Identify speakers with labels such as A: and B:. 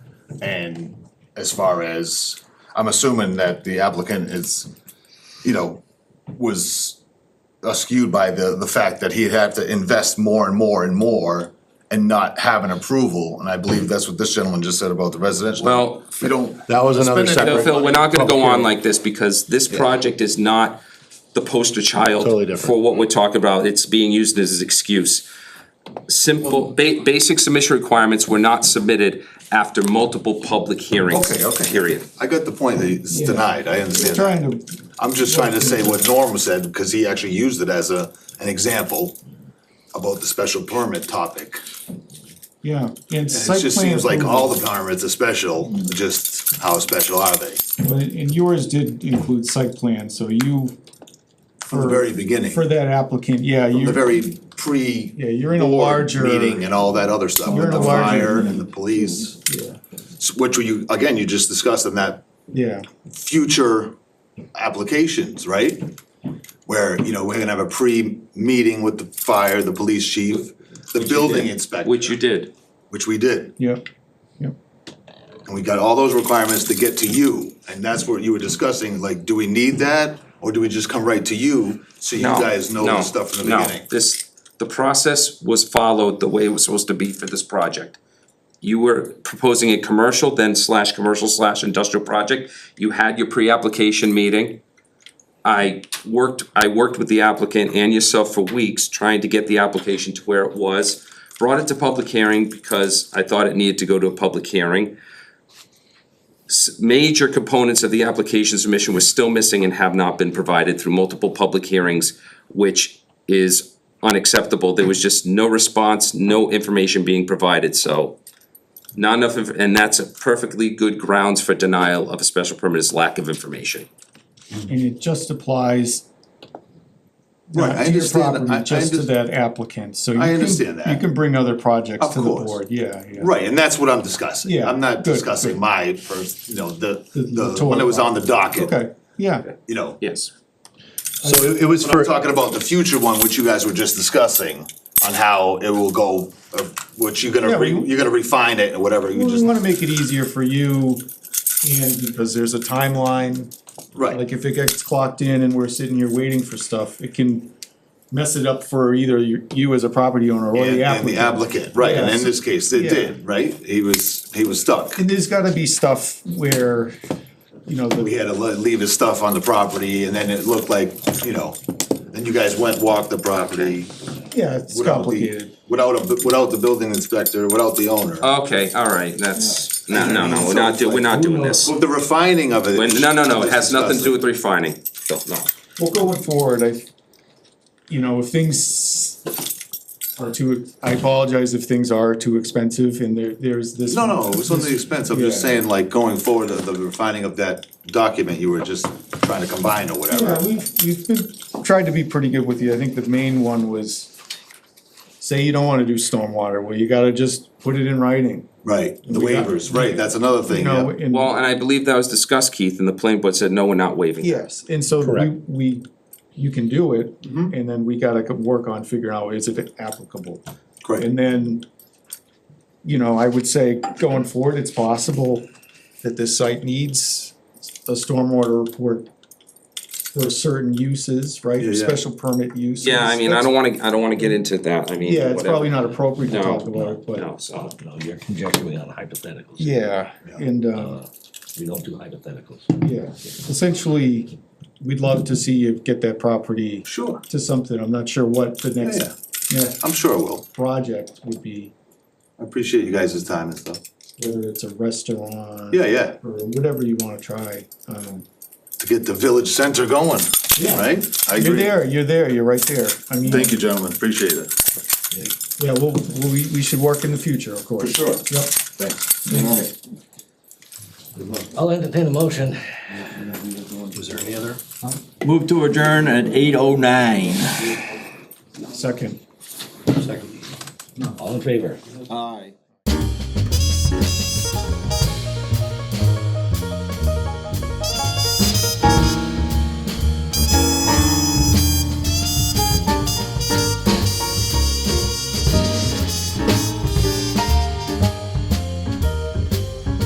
A: And as far as, I'm assuming that the applicant is, you know, was skewed by the, the fact that he had to invest more and more and more and not have an approval, and I believe that's what this gentleman just said about the residential.
B: Well,
A: We don't.
C: That was another
A: Spend it,
C: separate.
A: Phil,
B: Phil, we're not gonna go
C: Public
B: on
C: hearing.
B: like this because this project is not the poster child
C: Totally different.
B: for what we're talking about. It's being used as an excuse. Simple, ba- basic submission requirements were not submitted after multiple public hearings.
A: Okay, okay.
B: Period.
A: I got the point that it's denied, I understand that.
D: Trying to,
A: I'm just trying to say what Norm said, because he actually used it as a, an example about the special permit topic.
D: yeah, and
A: And
D: site
A: it just
D: plan
A: seems like all
D: approval,
A: the permits are special, just how special are they?
D: and and yours did include site plan, so you.
A: From the very beginning,
D: For
A: from
D: that applicant, yeah,
A: the
D: you're,
A: very pre.
D: Yeah, you're in a
A: board
D: larger-
A: Meeting and all that other stuff,
D: You're
A: with
D: in a
A: the
D: larger-
A: fire and the police,
D: yeah,
A: s- which you, again, you just discussed in that
D: yeah,
A: future applications, right? Where, you know, we're gonna have a pre-meeting with the fire, the police chief, the building inspector.
B: Which you did.
A: Which we did,
D: yep, yep,
A: and we got all those requirements to get to you, and that's what you were discussing, like, do we need that? Or do we just come right to you, so you
B: No,
A: guys know
B: no,
A: the stuff from the
B: no.
A: beginning?
B: This, the process was followed the way it was supposed to be for this project. You were proposing a commercial then slash commercial slash industrial project. You had your pre-application meeting. I worked, I worked with the applicant and yourself for weeks trying to get the application to where it was. Brought it to public hearing because I thought it needed to go to a public hearing. S- Major components of the application submission were still missing and have not been provided through multiple public hearings, which is unacceptable. There was just no response, no information being provided, so not enough, inf- and that's a perfectly good grounds for denial of a special permit is lack of information.
D: and it just applies. not
A: Right, I
D: to your
A: understand-
D: property,
A: I- I
D: Just to
A: under-
D: that applicant, so you
A: I
D: can-
A: understand that.
D: You can bring other projects
A: Of
D: to the
A: course.
D: board, yeah, yeah.
A: Right, and that's what I'm discussing,
D: Yeah,
A: I'm not
D: good,
A: discussing
D: good.
A: my first, you know, the,
D: the
A: the one that was on the docket,
D: Okay, yeah,
A: you know.
B: Yes.
C: So it it was
A: But
C: for,
A: I'm talking about the future one, which you guys were just discussing, on how it will go, uh, what you're gonna,
D: Yeah,
A: re-
D: we-
A: you're gonna refine it, or whatever, you
D: we
A: just,
D: wanna make it easier for you, and because there's a timeline, Like
A: right,
D: if it gets clocked in and we're sitting here waiting for stuff, it can mess it up for either you, you as a property owner or
A: and
D: the
A: and the
D: applicant.
A: applicant, right, and
D: Yeah,
A: in
D: so-
A: this case, it
D: yeah.
A: did, right, he was, he was stuck.
D: And there's gotta be stuff where, you know,
A: He
D: the,
A: had to le- leave his stuff on the property, and then it looked like, you know, then you guys went, walked the property.
D: yeah,
A: without
D: it's
A: the-
D: complicated.
A: Without a, bu- without the building inspector, without the owner.
B: Uh, Okay, all right, that's, no, no, no, we're not, do- we're not doing this.
A: Well, the refining of it.
B: When- No, no, no, it has nothing to do with refining. No, no.
D: Well, going forward, I, you know, if things are too, I apologize if things are too expensive and there, there's this.
A: No, no, it was on the expense, I'm just
D: Yeah.
A: saying, like, going forward, the- the refining of that document you were just trying to combine or
D: Yeah,
A: whatever.
D: we've, we've been, tried to be pretty good with you, I think the main one was, say you don't wanna do stormwater, well, you gotta just put it in writing,
A: Right, the
D: We got-
A: waivers, right, that's another
D: you
A: thing,
D: know,
A: yeah.
D: and.
B: Well, and I believe that was discussed, Keith, and the planning board said, no, we're not waiving. that."
D: Yes, and so we,
C: Correct.
D: we, you can do it,
A: Mm-hmm.
D: and then we gotta co- work on figuring out is it applicable.
A: Great,
D: And then, you know, I would say going forward, it's possible that this site needs a stormwater report for certain uses, right?
A: Yeah, yeah.
D: Special permit uses.
B: Yeah, I mean, I don't wanna, I don't wanna get into that, I mean,
D: Yeah, it's probably
B: whatever.
D: not appropriate to
B: No,
D: talk about it, but,
B: No, so.
E: No, you're conjecturing on hypotheticals.
D: yeah, and, uh,
E: Uh, We don't do hypotheticals.
D: yeah, essentially, we'd love to see you get that property
A: sure,
D: to something, I'm not sure what the
A: Yeah.
D: next, next
A: I'm sure it will,
D: project would be,
A: I appreciate you guys' time and stuff.
D: whether it's a restaurant.
A: Yeah, yeah,
D: Or whatever you wanna try, um,
A: to get the village center going, right? I
D: you're
A: agree.
D: there, you're there, you're right there, I mean.
A: Thank you, gentlemen, appreciate it.
D: Yeah, well, well, we, we should work in the future, of course.
A: sure.
D: Yep.
A: Thanks.
E: I'll entertain a motion.
F: Was there any other?
G: Move to adjourn at eight oh nine.
D: Second.
E: All in favor?
G: Aye.